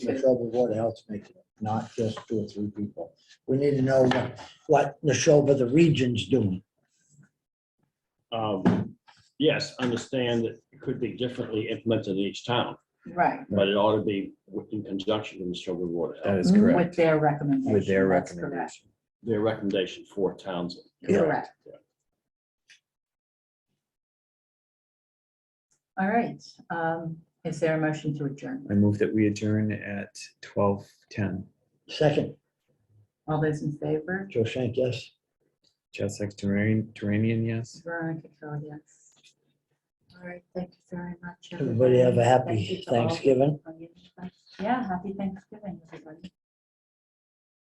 the Neshoba Board of Health's making, not just two or three people. We need to know what, what Neshoba, the region's doing. Um, Yes, understand that it could be differently implemented in each town, Right, but it ought to be in conjunction with the Shelby Water. That is correct. with their recommendation. With their that's correct. recommendation. Their recommendation for towns. Correct. Yeah. All right, um, is there a motion to adjourn? I move that we adjourn at twelve ten. Second, All those in favor? Joe Shank, yes? Chad Sexton, Duranian, yes. Veronica Kell, yes. All right, thank you very much. Everybody have a Thank you happy to all. Thanksgiving. Yeah, happy Thanksgiving, everybody.